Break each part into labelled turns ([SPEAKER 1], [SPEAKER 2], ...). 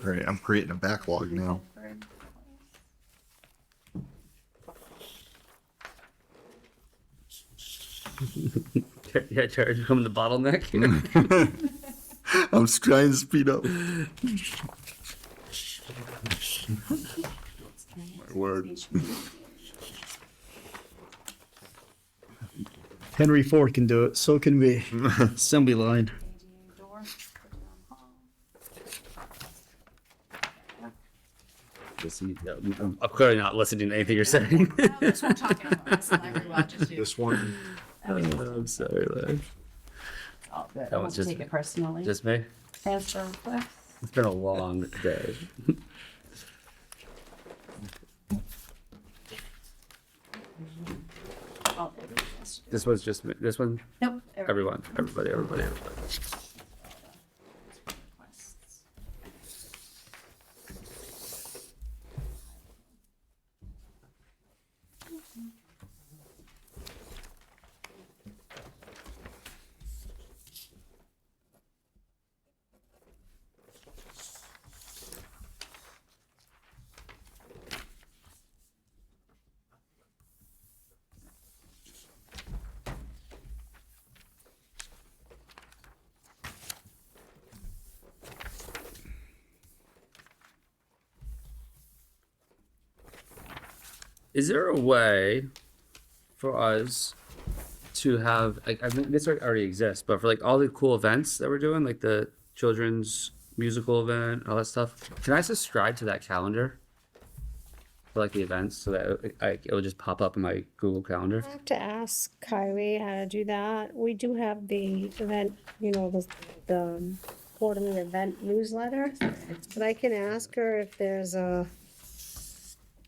[SPEAKER 1] Great. I'm creating a backlog now.
[SPEAKER 2] Yeah, Jared, become the bottleneck.
[SPEAKER 1] I'm just trying to speed up. My word.
[SPEAKER 3] Henry Ford can do it. So can we. Assembly line.
[SPEAKER 2] Just, you know, I'm I'm clearly not listening to anything you're saying.
[SPEAKER 4] That's what I'm talking about. That's the library watches do.
[SPEAKER 5] This one,
[SPEAKER 2] I'm sorry, Larry.
[SPEAKER 4] Oh, good.
[SPEAKER 2] That
[SPEAKER 4] I
[SPEAKER 2] was
[SPEAKER 4] won't
[SPEAKER 2] just-
[SPEAKER 4] take it personally.
[SPEAKER 2] Just me.
[SPEAKER 4] As for requests,
[SPEAKER 2] It's been a long day.
[SPEAKER 4] all the requests.
[SPEAKER 2] This one's just me. This one,
[SPEAKER 4] Nope.
[SPEAKER 2] everyone, everybody, everybody, everybody.
[SPEAKER 4] requests.
[SPEAKER 2] Is there a way for us to have like I mean this already already exists, but for like all the cool events that we're doing, like the children's musical event, all that stuff, can I subscribe to that calendar for like the events so that I, it'll just pop up in my Google Calendar?
[SPEAKER 6] I have to ask Kylie how to do that. We do have the event, you know, the, the quarterly event newsletter. But I can ask her if there's a,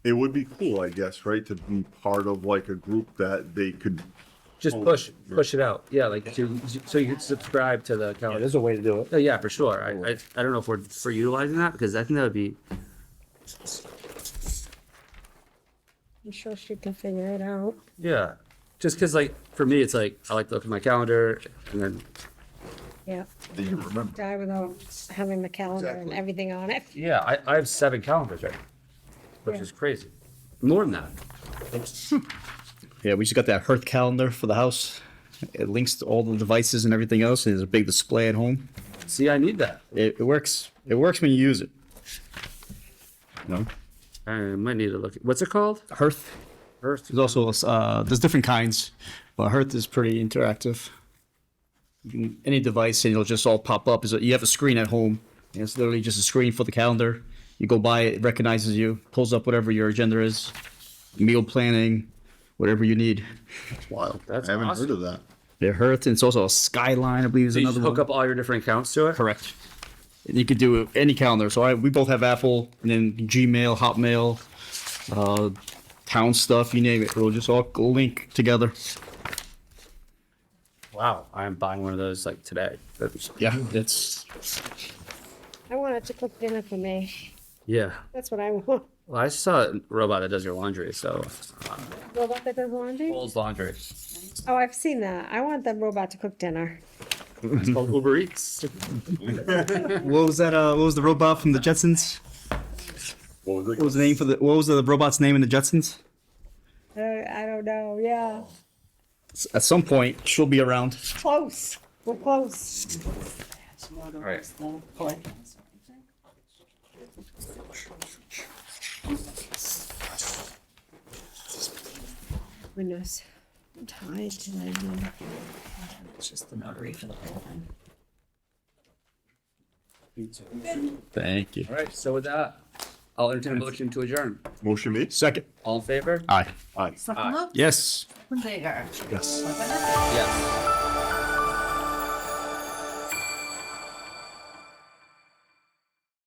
[SPEAKER 1] It would be cool, I guess, right, to be part of like a group that they could.
[SPEAKER 2] Just
[SPEAKER 1] Oh,
[SPEAKER 2] push
[SPEAKER 1] yeah.
[SPEAKER 2] push it out, yeah, like to so you can subscribe to the
[SPEAKER 5] yeah,
[SPEAKER 2] calendar.
[SPEAKER 5] there's a way to do it.
[SPEAKER 2] Oh, yeah, for sure. I, I, I don't know if we're for utilizing that because I think that would be
[SPEAKER 6] I'm sure she can figure it out.
[SPEAKER 2] yeah. Just because like for me, it's like I like to look at my calendar and then
[SPEAKER 6] Yeah,
[SPEAKER 1] They can remember.
[SPEAKER 6] die without having the calendar and
[SPEAKER 1] Exactly.
[SPEAKER 6] everything on it.
[SPEAKER 2] yeah, I, I have seven calendars right, which
[SPEAKER 6] Yeah.
[SPEAKER 2] is crazy. More than that.
[SPEAKER 3] Yeah, we just got that Hearth calendar for the house. It links to all the devices and everything else. and There's a big display at home.
[SPEAKER 2] See, I need that.
[SPEAKER 3] It, it works. It works when you use it. No,
[SPEAKER 2] I might need to look. What's it called?
[SPEAKER 3] Hearth.
[SPEAKER 2] Earth.
[SPEAKER 3] There's also uh, there's different kinds, but Hearth is pretty interactive. You can any device and it'll just all pop up. Is you have a screen at home? And it's literally just a screen for the calendar. You go by it, it recognizes you, pulls up whatever your agenda is, meal planning, whatever you need.
[SPEAKER 1] Wow,
[SPEAKER 2] That's
[SPEAKER 1] I haven't
[SPEAKER 2] awesome.
[SPEAKER 1] heard of that.
[SPEAKER 3] The Hearth, and it's also a Skyline, I believe, is
[SPEAKER 2] So you just
[SPEAKER 3] another
[SPEAKER 2] hook
[SPEAKER 3] one.
[SPEAKER 2] up all your different accounts to it.
[SPEAKER 3] Correct. And You could do any calendar. So I, we both have Apple, and then Gmail, Hotmail, uh, town stuff, you name it. It'll just all link together.
[SPEAKER 2] Wow, I'm buying one of those like today. That's-
[SPEAKER 3] Yeah, it's
[SPEAKER 6] I want it to cook dinner for me.
[SPEAKER 2] yeah.
[SPEAKER 6] That's what I want.
[SPEAKER 2] Well, I saw a robot that does your laundry. So
[SPEAKER 6] Robot that does laundry?
[SPEAKER 2] Old laundry.
[SPEAKER 6] Oh, I've seen that. I want the robot to cook dinner.
[SPEAKER 2] It's called Uber Eats.
[SPEAKER 3] what was that? Uh, what was the robot from the Jetsons?
[SPEAKER 1] What
[SPEAKER 3] What was the name for the? What was the robot's name in the Jetsons?
[SPEAKER 6] Uh, I don't know, yeah.
[SPEAKER 3] S- At some point, she'll be around.
[SPEAKER 6] Close, we're close.
[SPEAKER 4] That's more than
[SPEAKER 2] right.
[SPEAKER 4] just the collections or anything.
[SPEAKER 6] Goodness. I'm tired tonight. man.
[SPEAKER 4] It's just the notary for the whole thing.
[SPEAKER 3] Thank you.
[SPEAKER 2] All right. So with that, I'll entertain a motion to adjourn.
[SPEAKER 1] Motion made.
[SPEAKER 3] Second.
[SPEAKER 2] All in favor?
[SPEAKER 3] Aye.
[SPEAKER 1] Aye.
[SPEAKER 4] Suck them up.
[SPEAKER 3] Yes.
[SPEAKER 4] They are.
[SPEAKER 1] Yes.
[SPEAKER 4] Suck 'em up.
[SPEAKER 2] Yes.